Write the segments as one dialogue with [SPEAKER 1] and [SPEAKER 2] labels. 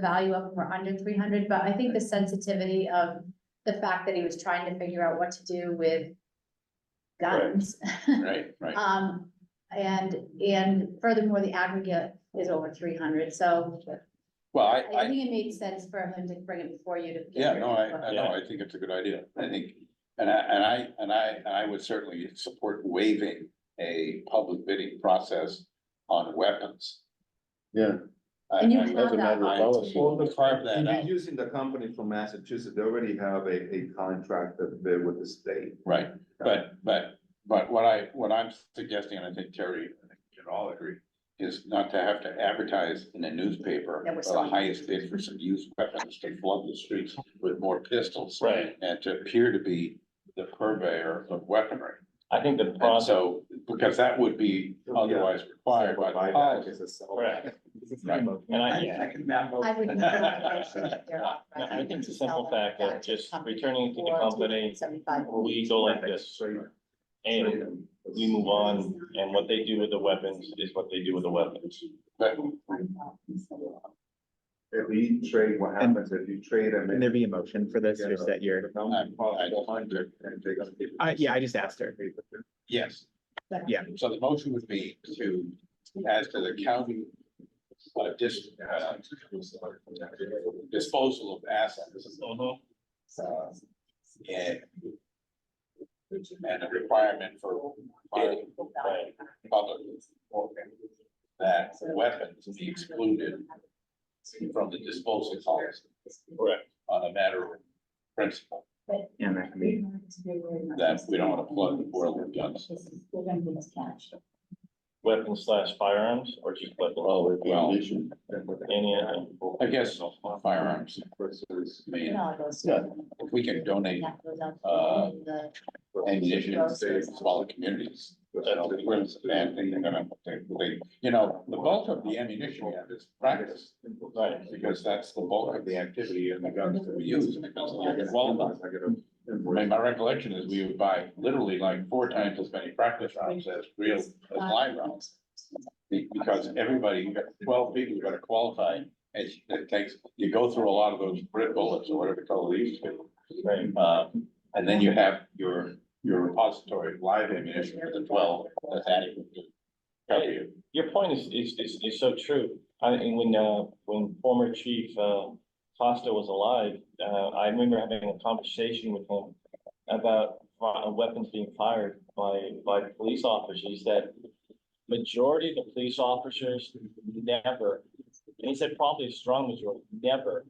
[SPEAKER 1] the value of them were under three hundred, but I think the sensitivity of the fact that he was trying to figure out what to do with guns.
[SPEAKER 2] right, right.
[SPEAKER 1] Um, and, and furthermore, the aggregate is over three hundred, so
[SPEAKER 2] Well, I,
[SPEAKER 1] I
[SPEAKER 2] I,
[SPEAKER 1] think it made sense for him to bring it before you to. get
[SPEAKER 2] yeah,
[SPEAKER 1] rid
[SPEAKER 2] no,
[SPEAKER 1] of it.
[SPEAKER 2] I, I know, I think it's a good idea. I think, and I, and I, and I, and I would certainly support waiving a public bidding process on weapons.
[SPEAKER 3] Yeah.
[SPEAKER 2] I-
[SPEAKER 1] And you
[SPEAKER 2] I-
[SPEAKER 1] have
[SPEAKER 3] That's a matter
[SPEAKER 1] that,
[SPEAKER 3] of
[SPEAKER 2] I-
[SPEAKER 3] policy.
[SPEAKER 2] Well, let's carve that
[SPEAKER 4] You're
[SPEAKER 2] out.
[SPEAKER 4] using the company from Massachusetts, they already have a, a contract that they with the state.
[SPEAKER 2] Right, but, but, but what I, what I'm suggesting, and I think Terry, I think we can all agree, is not to have to advertise in a newspaper
[SPEAKER 1] That we're
[SPEAKER 2] for the
[SPEAKER 1] selling.
[SPEAKER 2] highest bid for some used weapons to flood the streets with more pistols.
[SPEAKER 5] Right.
[SPEAKER 2] And to appear to be the purveyor of weaponry.
[SPEAKER 5] I think the
[SPEAKER 2] And
[SPEAKER 5] process,
[SPEAKER 2] so, because that would be otherwise required by the
[SPEAKER 4] Buyback
[SPEAKER 2] policy.
[SPEAKER 4] is a sell.
[SPEAKER 5] Oh. Correct.
[SPEAKER 6] Mm,
[SPEAKER 2] Right.
[SPEAKER 5] and I,
[SPEAKER 1] I would. make a motion that they're authorized
[SPEAKER 5] I think the
[SPEAKER 1] to sell
[SPEAKER 5] simple
[SPEAKER 1] them
[SPEAKER 5] fact that
[SPEAKER 1] back
[SPEAKER 5] just
[SPEAKER 1] company
[SPEAKER 5] returning to the
[SPEAKER 1] for
[SPEAKER 5] company, uh,
[SPEAKER 1] $275.
[SPEAKER 5] we go like this, and we move on, and what they do with the weapons is what they do with the weapons.
[SPEAKER 2] But
[SPEAKER 4] If we trade, what happens if you trade them?
[SPEAKER 6] Can there be a motion for this, or is that your, I- yeah, I just asked her.
[SPEAKER 2] yes,
[SPEAKER 6] yeah,
[SPEAKER 2] so the motion would be to, as to the county uh, dis, uh, disposal of assets. uh, And and a requirement for bidding by public that weapons be excluded from the disposal policy
[SPEAKER 5] Correct.
[SPEAKER 2] on a matter of principle,
[SPEAKER 6] and that can be,
[SPEAKER 2] that we don't want to flood the world with guns.
[SPEAKER 5] Weapons slash firearms or just weapons,
[SPEAKER 2] Well,
[SPEAKER 5] any, uh,
[SPEAKER 2] I guess firearms, I mean, if we can donate uh, ammunition to smaller communities. That'll be where it's a bad thing, they're gonna- they- they- You know, the bulk of the ammunition we have is practice,
[SPEAKER 5] right,
[SPEAKER 2] because that's the bulk of the activity and the guns that we use. and it doesn't get well enough. I mean, my recollection is we would buy literally like four times as many practice rounds as real, as live rounds. Be- Because everybody, you got twelve people, you gotta qualify, and it takes, you go through a lot of those brick bullets or whatever they call these.
[SPEAKER 5] right.
[SPEAKER 2] Um, and then you have your, your repository of live ammunition for the twelve, that's adequate. to cover you.
[SPEAKER 5] Your point is, is, is, is so true. I, and when, uh, when former chief, uh, Costa was alive, uh, I remember having a conversation with him about fi- uh, weapons being fired by, by police officers, that majority of the police officers never, and he said probably a strong majority, never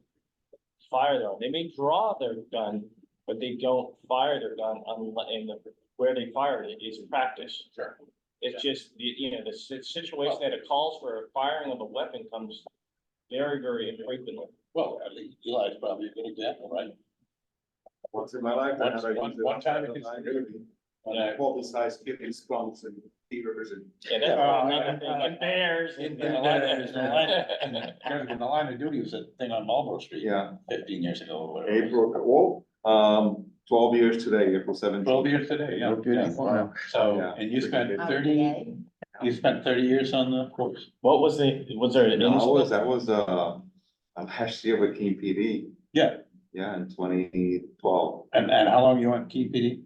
[SPEAKER 5] fire their, own. they may draw their gun, but they don't fire their gun unless, and the- where they fire it is practice.
[SPEAKER 2] Sure.
[SPEAKER 5] It's just, the you know, the si- situation that it calls for a firing of a weapon comes very, very infrequently.
[SPEAKER 2] Well, I think Eli's probably a good example, right?
[SPEAKER 4] Once in my life. I
[SPEAKER 2] Once-
[SPEAKER 4] had a-
[SPEAKER 2] one- one time it is-
[SPEAKER 4] And I publicized killing skunks and theaters and.
[SPEAKER 5] Yeah, that's
[SPEAKER 2] Yeah.
[SPEAKER 5] another thing, like bears and.
[SPEAKER 2] In in the line, in the line- in the line of duty was a thing on Marlboro Street
[SPEAKER 4] Yeah,
[SPEAKER 2] fifteen years ago. or whatever.
[SPEAKER 4] April, oh, um, twelve years today, April seventeenth.
[SPEAKER 2] Twelve years today, yeah.
[SPEAKER 3] Okay, wow.
[SPEAKER 2] So,
[SPEAKER 4] Yeah.
[SPEAKER 2] and you spent
[SPEAKER 1] Oh,
[SPEAKER 2] thirty,
[SPEAKER 1] yay.
[SPEAKER 2] you spent thirty years on the force?
[SPEAKER 5] What was the, was there an
[SPEAKER 4] No, I was,
[SPEAKER 5] incident?
[SPEAKER 4] I was, uh, uh, last year with King PD,
[SPEAKER 2] Yeah,
[SPEAKER 4] yeah, in twenty twelve,
[SPEAKER 2] and, and how long you on KPD?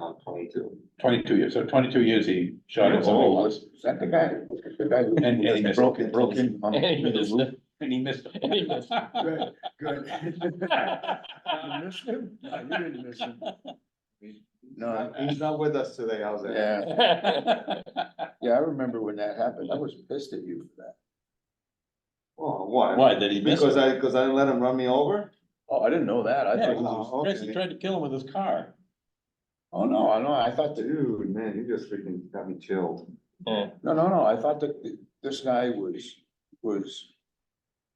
[SPEAKER 4] uh, twenty-two.
[SPEAKER 2] Twenty-two years, so twenty-two years he shot at somebody once.
[SPEAKER 3] Is that the guy? The guy who-
[SPEAKER 2] And- and he
[SPEAKER 3] broke in, broke in. on-
[SPEAKER 5] And he
[SPEAKER 3] with his lip?
[SPEAKER 2] And he missed.
[SPEAKER 5] And he missed.
[SPEAKER 3] Good, good. You missed him? No, you didn't miss him. No,
[SPEAKER 4] He's not with us today, how's that?
[SPEAKER 3] yeah, yeah, I remember when that happened. I was pissed at you for that.
[SPEAKER 4] Oh, why?
[SPEAKER 2] Why, did he miss?
[SPEAKER 4] Because I, because I let him run me over?
[SPEAKER 3] Oh, I didn't know that. I
[SPEAKER 2] Yeah,
[SPEAKER 3] thought,
[SPEAKER 2] he
[SPEAKER 3] oh,
[SPEAKER 4] Oh,
[SPEAKER 2] Chris, he
[SPEAKER 4] okay.
[SPEAKER 2] tried to kill him with his car.
[SPEAKER 3] oh, no, I know, I thought that,
[SPEAKER 4] Dude, man, you just freaking got me chilled.
[SPEAKER 3] no, no, no, I thought that th- this guy was, was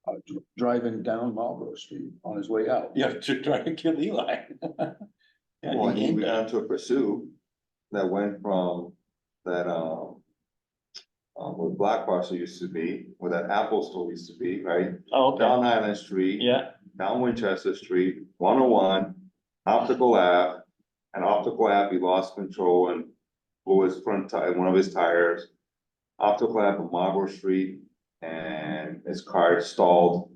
[SPEAKER 3] uh, dr- driving down Marlboro Street on his way out.
[SPEAKER 2] Yeah, to try to kill Eli. Yeah,
[SPEAKER 4] Well,
[SPEAKER 2] he
[SPEAKER 4] he
[SPEAKER 2] aimed
[SPEAKER 4] went
[SPEAKER 2] at him.
[SPEAKER 4] on to a pursuit that went from that, um, uh, where Black Parcel used to be, where that Apple store used to be, right?
[SPEAKER 5] Oh, okay,
[SPEAKER 4] Down Island Street.
[SPEAKER 5] yeah,
[SPEAKER 4] down Winchester Street, one oh one, optical app. And optical app, he lost control and blew his front tire, one of his tires. Optical app on Marlboro Street and his car stalled